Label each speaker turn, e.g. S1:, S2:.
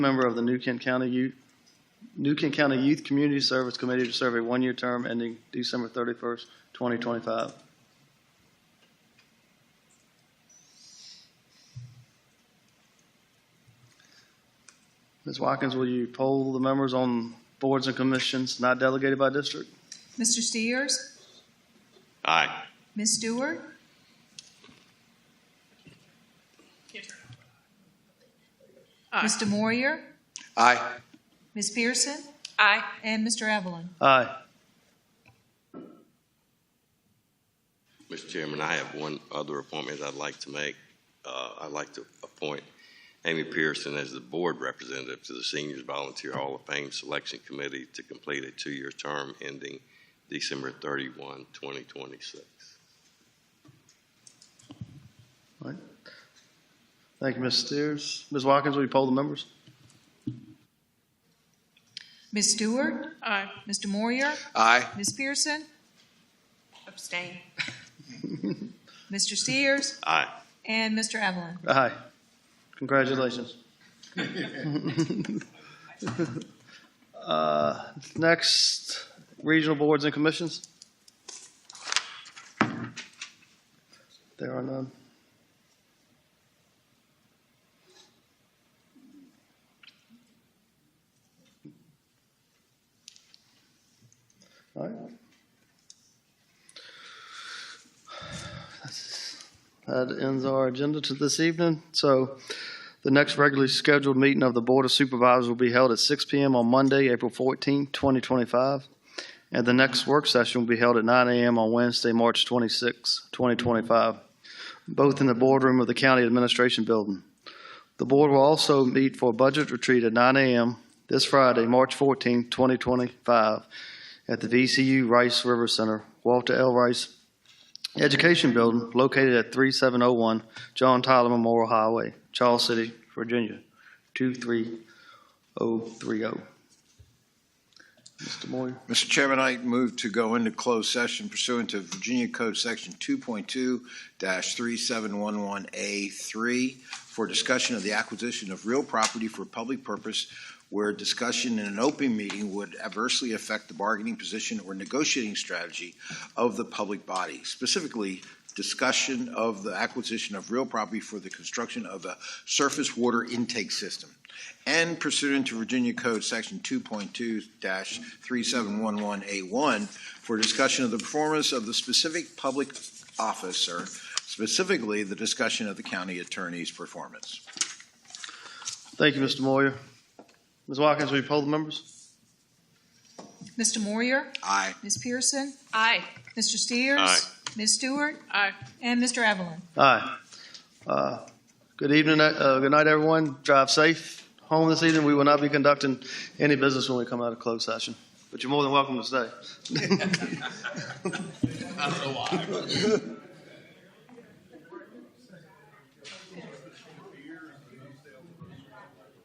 S1: member of the New Kent County Youth, New Kent County Youth Community Service Committee to serve a one-year term ending December thirty-first, twenty twenty-five. Ms. Watkins, will you poll the members on boards and commissions not delegated by district?
S2: Mr. Steers?
S3: Aye.
S2: Ms. Stewart? Mr. Moyer?
S3: Aye.
S2: Ms. Pearson?
S4: Aye.
S2: And Mr. Evelyn?
S1: Aye.
S3: Mr. Chairman, I have one other appointment I'd like to make. Uh, I'd like to appoint Amy Pearson as the board representative to the Seniors Volunteer Hall of Fame Selection Committee to complete a two-year term ending December 31, 2026.
S1: Thank you, Ms. Steers. Ms. Watkins, will you poll the members?
S2: Ms. Stewart?
S4: Aye.
S2: Mr. Moyer?
S3: Aye.
S2: Ms. Pearson?
S4: Abstain.
S2: Mr. Steers?
S3: Aye.
S2: And Mr. Evelyn?
S1: Aye. Congratulations. Uh, Next, regional boards and commissions. There are none. All right. That ends our agenda to this evening. So the next regularly scheduled meeting of the Board of Supervisors will be held at 6 PM on Monday, April 14th, 2025. And the next work session will be held at 9 AM on Wednesday, March 26th, 2025, both in the boardroom of the County Administration Building. The board will also meet for a budget retreat at 9 AM this Friday, March 14th, 2025, at the VCU Rice River Center, Walter L. Rice Education Building located at 3701 John Tyler Memorial Highway, Charles City, Virginia, 23030. Mr. Moyer,
S5: Mr. Chairman, I move to go into closed session pursuant to Virginia Code Section 2.2-3711A3 for discussion of the acquisition of real property for public purpose where discussion in an open meeting would adversely affect the bargaining position or negotiating strategy of the public body, specifically discussion of the acquisition of real property for the construction of a surface water intake system and pursuant to Virginia Code Section 2.2-3711A1 for discussion of the performance of the specific public officer, specifically the discussion of the county attorney's performance.
S1: Thank you, Mr. Moyer. Ms. Watkins, will you poll the members?
S2: Mr. Moyer?
S5: Aye.
S2: Ms. Pearson?
S4: Aye.
S2: Mr. Steers?
S3: Aye.
S2: Ms. Stewart?
S4: Aye.
S2: And Mr. Evelyn?
S1: Aye. Uh, Good evening, uh, good night, everyone. Drive safe home this evening. We will not be conducting any business when we come out of closed session, but you're more than welcome to stay.